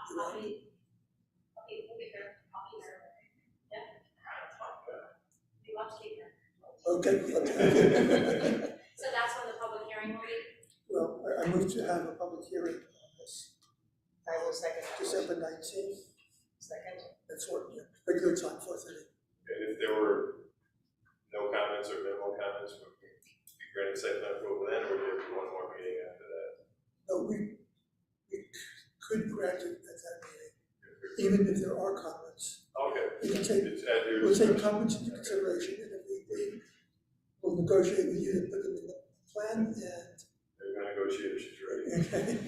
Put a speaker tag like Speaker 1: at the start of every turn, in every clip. Speaker 1: I'll be, okay, we'll be there, I'll be there. Yeah. We love to be there.
Speaker 2: Okay, okay.
Speaker 1: So that's when the public hearing will be,
Speaker 2: Well, I- I move to have a public hearing on this,
Speaker 3: I will second that motion.
Speaker 2: December nineteenth,
Speaker 3: Second.
Speaker 2: that's what, yeah, regular time for today.
Speaker 4: And if there were no comments or minimal comments, would we be granted site plan approval then, or would there be one more meeting after that?
Speaker 2: No, we, we could grant it at that meeting, even if there are comments.
Speaker 4: Okay,
Speaker 2: We can take,
Speaker 4: it's at your
Speaker 2: we'll take
Speaker 4: discretion.
Speaker 2: comments into consideration, and if we, we will negotiate with you to put them in the plan
Speaker 4: They're gonna go cheat if she's ready.
Speaker 2: and, okay.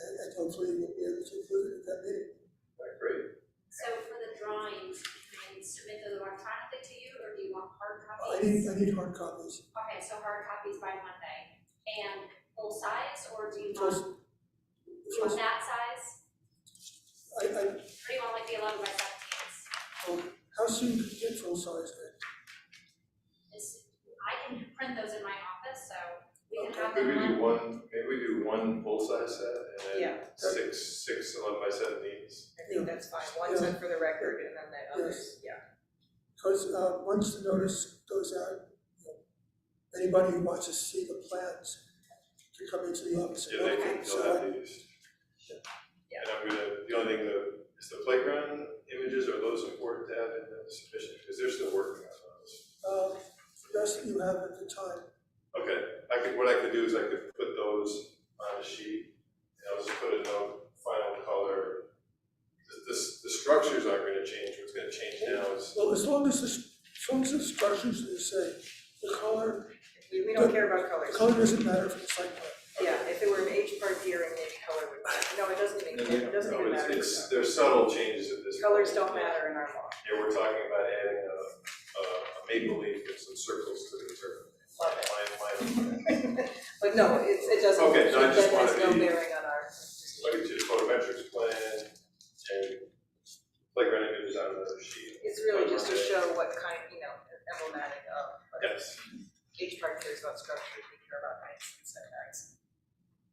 Speaker 2: And, and hopefully we'll be able to include it at that meeting.
Speaker 4: All right, Great.
Speaker 1: so for the drawings, can I submit those electronically to you, or do you want hard
Speaker 2: I
Speaker 1: copies?
Speaker 2: need, I need hard copies,
Speaker 1: Okay, so hard copies by Monday, and full size, or do you
Speaker 2: Full-
Speaker 1: want, do you want that size,
Speaker 2: I, I,
Speaker 1: or do you want like the eleven by seventeens?
Speaker 2: how soon could you get full size then?
Speaker 1: This, I can print those in my office, so we can
Speaker 2: Okay,
Speaker 1: have them
Speaker 4: Maybe we do
Speaker 1: on,
Speaker 4: one, maybe we do one full-size set and then
Speaker 3: Yeah.
Speaker 4: six, six eleven by seventeens.
Speaker 3: I think that's fine, one set for the record and then the others, yeah.
Speaker 2: Because, uh, once the notice goes out, you know, anybody who wants to see the plans can come into the office. and
Speaker 4: Yeah, they
Speaker 2: look at
Speaker 4: can,
Speaker 2: it.
Speaker 4: they'll
Speaker 2: So
Speaker 4: have these.
Speaker 3: Yeah.
Speaker 4: And I'm gonna, the only thing, the, is the playground images, are those important to have in the submission, because they're still working on those.
Speaker 2: I, uh, yes, you have at the time,
Speaker 4: Okay, I could, what I could do is I could put those on a sheet, and I'll just put a note, final color. The, the, the structures aren't gonna change, what's gonna change now is,
Speaker 2: well, as long as the, s- as long as the structures are the same, the color,
Speaker 3: We, we don't care about colors.
Speaker 2: color doesn't matter for the site plan.
Speaker 3: Yeah, if it were an H part here and maybe color would matter. No, it doesn't even, it doesn't
Speaker 4: no,
Speaker 3: even
Speaker 4: it's,
Speaker 3: matter.
Speaker 4: it's, there's subtle changes at this.
Speaker 3: Colors
Speaker 4: point.
Speaker 3: don't matter in our law.
Speaker 4: Yeah, we're talking about adding a, a a maple leaf and some circles to the turf.
Speaker 3: Love it.
Speaker 4: Line, line,
Speaker 3: But no, it's, it doesn't,
Speaker 4: Okay, no, I just
Speaker 3: that
Speaker 4: wanted
Speaker 3: has
Speaker 4: to
Speaker 3: no
Speaker 4: be-
Speaker 3: bearing on our.
Speaker 4: look at your photometrics plan, and playground images on another sheet.
Speaker 3: It's really just to show what kind, you know, emblematic of.
Speaker 4: Yes,
Speaker 3: H part cares about structure, we care about heights and setbacks.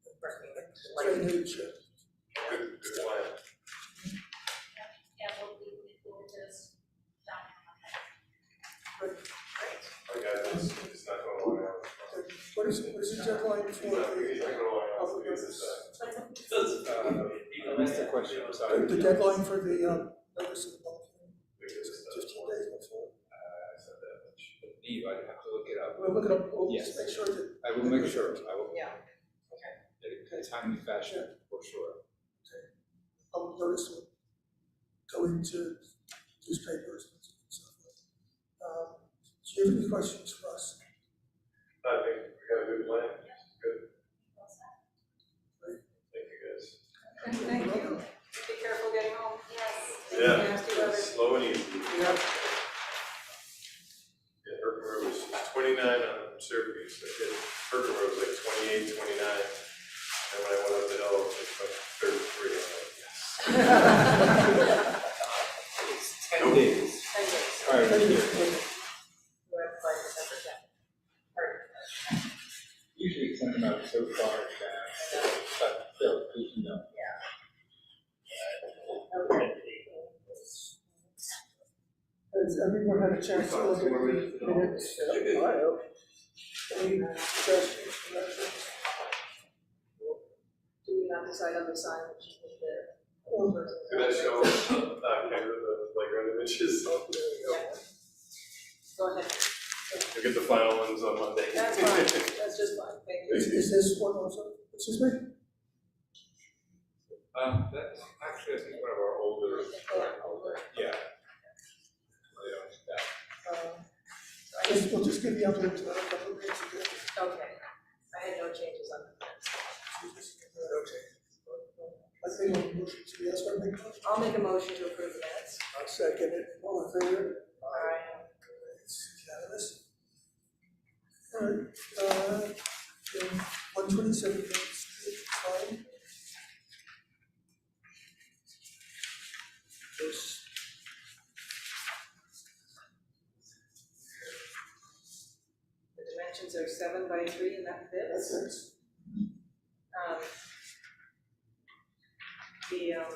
Speaker 3: Working with light.
Speaker 2: Drainage, uh,
Speaker 4: good, good plan.
Speaker 1: yeah, we'll, we'll, we'll just, down on Monday.
Speaker 4: I got this, it's not going away.
Speaker 2: what is, what is the deadline for
Speaker 4: It's not
Speaker 2: the,
Speaker 4: going away, I'll leave this aside.
Speaker 5: I missed the question, I'm sorry.
Speaker 2: the deadline for the, um, notice of the bulk?
Speaker 4: Because, uh,
Speaker 2: Fifteen days before,
Speaker 4: I said that much.
Speaker 5: Leave, I have to look it up.
Speaker 2: we'll look it up, we'll
Speaker 5: Yes.
Speaker 2: just make sure that,
Speaker 5: I will make sure, I will,
Speaker 3: Yeah,
Speaker 5: in a timely fashion, for sure.
Speaker 2: public notice will go into newspapers and so forth. Um, do you have any questions for us?
Speaker 4: I think we got a good plan, good,
Speaker 1: What's that?
Speaker 4: thank you guys.
Speaker 3: thank you. Be careful getting home.
Speaker 1: Yes.
Speaker 4: Yeah.
Speaker 3: Nasty weather.
Speaker 4: Slow and easy.
Speaker 2: Yeah.
Speaker 4: Yeah, Herkimer Road was twenty-nine on Syracuse, I did, Herkimer Road was like twenty-eight, twenty-nine, and when I went up the hill, it was like thirty-three, I'm like, yes.
Speaker 5: It's ten days.
Speaker 3: Ten days.
Speaker 5: All right,
Speaker 2: Thank you.
Speaker 3: You have by December tenth.
Speaker 5: usually it's not about so far down, but still, you know.
Speaker 2: Has everyone had a chance to look at the minutes? Yeah, I hope. Any suggestions, corrections?
Speaker 3: Do we not decide on the sign which is there?
Speaker 4: Did I show, uh, camera the playground images? I'll
Speaker 3: Go ahead,
Speaker 4: get the final ones on Monday.
Speaker 3: that's fine, that's just fine, thank you.
Speaker 2: Is, is this one also, excuse me?
Speaker 5: Um, that's actually, I think one of our older, uh,
Speaker 3: Yeah, over.
Speaker 5: yeah. Really, uh,
Speaker 2: Uh, I guess we'll just give the update to a couple of minutes ago.
Speaker 3: Okay, I had no changes on the minutes.
Speaker 2: Okay. I think I'll motion to, yes, I make a motion.
Speaker 3: I'll make a motion to approve the minutes.
Speaker 2: I'll second it, all in favor?
Speaker 3: Aye.
Speaker 2: It's unanimous. All right, uh, one twenty-seven Main Street, fine. Yes.
Speaker 3: The dimensions are seven by three and that fits.
Speaker 2: That's it.
Speaker 3: Um, the, um,